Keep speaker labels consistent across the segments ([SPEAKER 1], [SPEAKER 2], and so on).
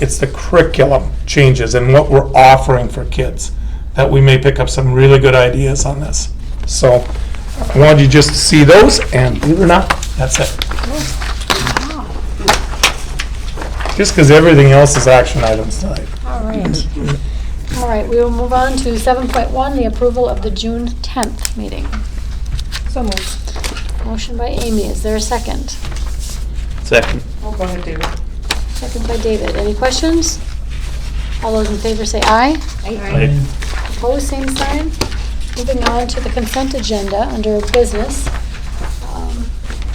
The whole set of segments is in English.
[SPEAKER 1] it's the curriculum changes and what we're offering for kids, that we may pick up some really good ideas on this. So I wanted you just to see those, and believe it or not, that's it. Just because everything else is action items tonight.
[SPEAKER 2] All right. All right, we will move on to 7.1, the approval of the June 10th meeting.
[SPEAKER 3] So moved.
[SPEAKER 2] Motion by Amy, is there a second?
[SPEAKER 4] Second.
[SPEAKER 3] Oh, go ahead, David.
[SPEAKER 2] Second by David, any questions? All those in favor say aye.
[SPEAKER 4] Aye.
[SPEAKER 2] Opposed, same sign. Moving on to the consent agenda under business. Um,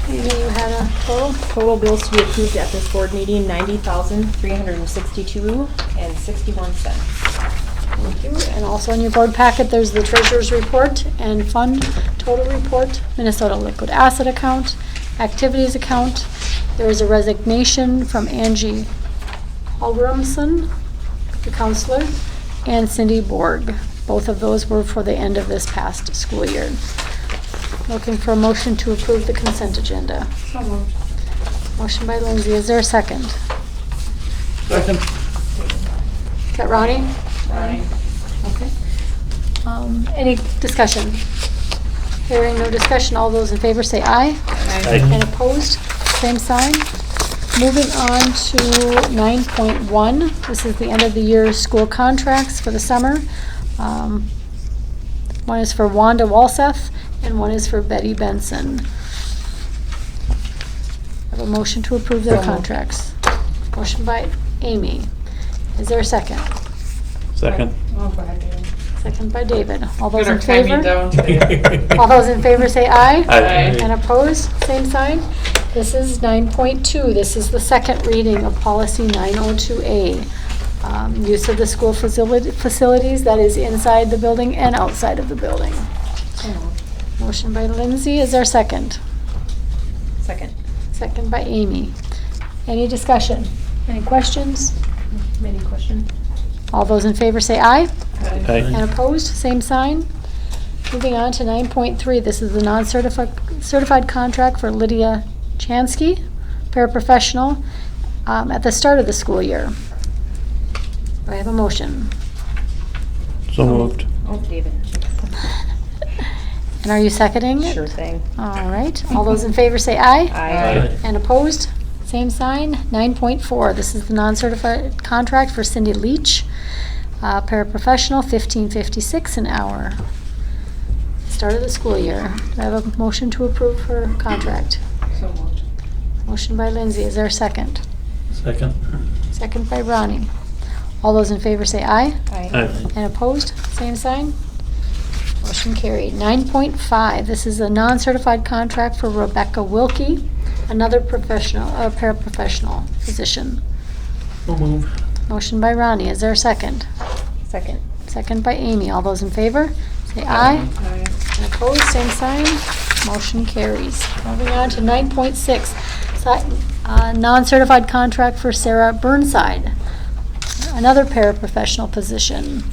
[SPEAKER 2] Amy, you had a total?
[SPEAKER 5] Total bills to be approved at this board meeting, ninety thousand, three hundred and sixty-two and sixty-one cents.
[SPEAKER 2] Thank you. And also in your board packet, there's the treasurer's report and fund total report, Minnesota liquid asset account, activities account. There is a resignation from Angie Holgrimson, the counselor, and Cindy Borg. Both of those were for the end of this past school year. Looking for a motion to approve the consent agenda.
[SPEAKER 3] So moved.
[SPEAKER 2] Motion by Lindsay, is there a second?
[SPEAKER 4] Second.
[SPEAKER 2] Is that Ronnie?
[SPEAKER 3] Aye.
[SPEAKER 2] Okay. Um, Any discussion? Hearing no discussion, all those in favor say aye. And opposed, same sign. Moving on to 9.1, this is the end of the year school contracts for the summer. Um, One is for Wanda Walseth and one is for Betty Benson. Have a motion to approve their
[SPEAKER 3] So moved.
[SPEAKER 2] contracts. Motion by Amy. Is there a second?
[SPEAKER 4] Second.
[SPEAKER 3] Oh, go ahead, David.
[SPEAKER 2] Second by David. All those
[SPEAKER 3] Get our
[SPEAKER 2] in favor?
[SPEAKER 3] timing down today.
[SPEAKER 2] All those in favor say aye.
[SPEAKER 3] Aye.
[SPEAKER 2] And opposed, same sign. This is 9.2. This is the second reading of policy 902A. um, Use of the school facili- facilities that is inside the building and outside of the building.
[SPEAKER 3] So moved.
[SPEAKER 2] Motion by Lindsay, is there second?
[SPEAKER 5] Second.
[SPEAKER 2] Second by Amy. Any discussion? Any questions?
[SPEAKER 5] Any questions?
[SPEAKER 2] All those in favor say aye.
[SPEAKER 4] Aye.
[SPEAKER 2] And opposed, same sign. Moving on to 9.3, this is the non-certified certified contract for Lydia Chansky, paraprofessional, um, at the start of the school year. Do I have a motion?
[SPEAKER 4] So moved.
[SPEAKER 5] Oh, David.
[SPEAKER 2] And are you seconding it?
[SPEAKER 5] Sure thing.
[SPEAKER 2] All right, all those in favor say aye.
[SPEAKER 4] Aye.
[SPEAKER 2] And opposed? Same sign. 9.4, this is the non-certified contract for Cindy Leach, uh, paraprofessional, 1556 an hour. Start of the school year. Do I have a motion to approve her contract?
[SPEAKER 3] So moved.
[SPEAKER 2] Motion by Lindsay, is there a second?
[SPEAKER 4] Second.
[SPEAKER 2] Second by Ronnie. All those in favor say aye.
[SPEAKER 5] Aye.
[SPEAKER 2] And opposed, same sign. Motion carried. 9.5, this is a non-certified contract for Rebecca Wilkie, another professional, a paraprofessional position.
[SPEAKER 4] So moved.
[SPEAKER 2] Motion by Ronnie, is there a second?
[SPEAKER 5] Second.
[SPEAKER 2] Second by Amy, all those in favor? Say aye.
[SPEAKER 3] Aye.
[SPEAKER 2] And opposed, same sign. Motion carries. Moving on to 9.6, si- uh, non-certified contract for Sarah Burnside, another paraprofessional position.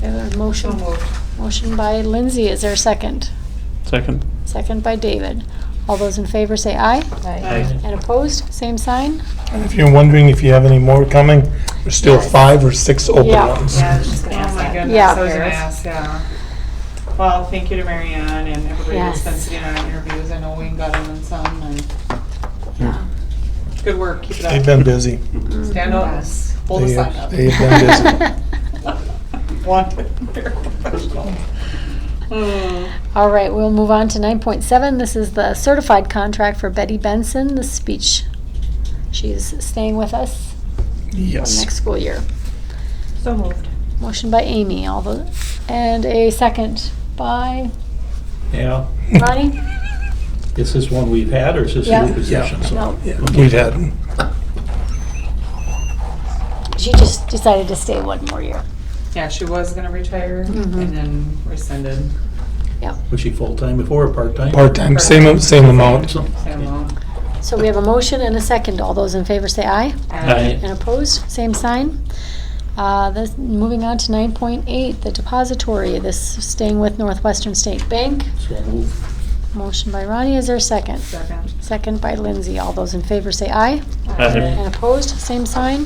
[SPEAKER 2] We have a
[SPEAKER 3] So
[SPEAKER 2] motion.
[SPEAKER 3] moved.
[SPEAKER 2] Motion by Lindsay, is there a second?
[SPEAKER 4] Second.
[SPEAKER 2] Second by David. All those in favor say aye. And opposed, same sign.
[SPEAKER 1] And if you're wondering if you have any more coming, there's still
[SPEAKER 2] Yes.
[SPEAKER 1] five or six open
[SPEAKER 2] Yeah.
[SPEAKER 1] ones.
[SPEAKER 3] Yeah, I was
[SPEAKER 5] just gonna ask
[SPEAKER 3] Oh my
[SPEAKER 5] that.
[SPEAKER 3] goodness,
[SPEAKER 2] Yeah.
[SPEAKER 3] I was gonna
[SPEAKER 5] Paris.
[SPEAKER 3] ask, yeah. Well, thank you to Marianne and everybody that's been
[SPEAKER 2] Yes.
[SPEAKER 3] sitting on interviews. I know Wayne got them and some, and
[SPEAKER 2] Yeah.
[SPEAKER 3] good work, keep it
[SPEAKER 1] They've
[SPEAKER 3] up.
[SPEAKER 1] been busy.
[SPEAKER 3] Stand up, hold
[SPEAKER 1] They
[SPEAKER 3] us
[SPEAKER 1] have-
[SPEAKER 3] up.
[SPEAKER 1] they have been busy.
[SPEAKER 3] Wanted, very professional. Hmm.
[SPEAKER 2] All right, we'll move on to 9.7. This is the certified contract for Betty Benson, the speech. She's staying with us for
[SPEAKER 1] Yes.
[SPEAKER 2] next school year.
[SPEAKER 5] So moved.
[SPEAKER 2] Motion by Amy, all the, and a second by
[SPEAKER 6] Yeah,
[SPEAKER 2] Ronnie?
[SPEAKER 6] is this one we've had, or is this
[SPEAKER 2] Yeah.
[SPEAKER 6] a new position? So-
[SPEAKER 2] No,
[SPEAKER 1] We've had,
[SPEAKER 2] she just decided to stay one more year.
[SPEAKER 3] Yeah, she was gonna retire
[SPEAKER 2] Mhm.
[SPEAKER 3] and then rescinded.
[SPEAKER 6] Was she full-time before or part-time?
[SPEAKER 1] part-time, same, same amount.
[SPEAKER 6] So-
[SPEAKER 3] Same
[SPEAKER 6] okay.
[SPEAKER 3] amount.
[SPEAKER 2] So we have a motion and a second. All those in favor say aye.
[SPEAKER 3] And-
[SPEAKER 2] And opposed, same sign. Uh, this, moving on to 9.8, the depository, this staying with Northwestern State Bank.
[SPEAKER 6] So move.
[SPEAKER 2] Motion by Ronnie, is there a second?
[SPEAKER 3] Second.
[SPEAKER 2] Second by Lindsay. All those in favor say aye.
[SPEAKER 4] Aye.
[SPEAKER 2] And opposed, same sign.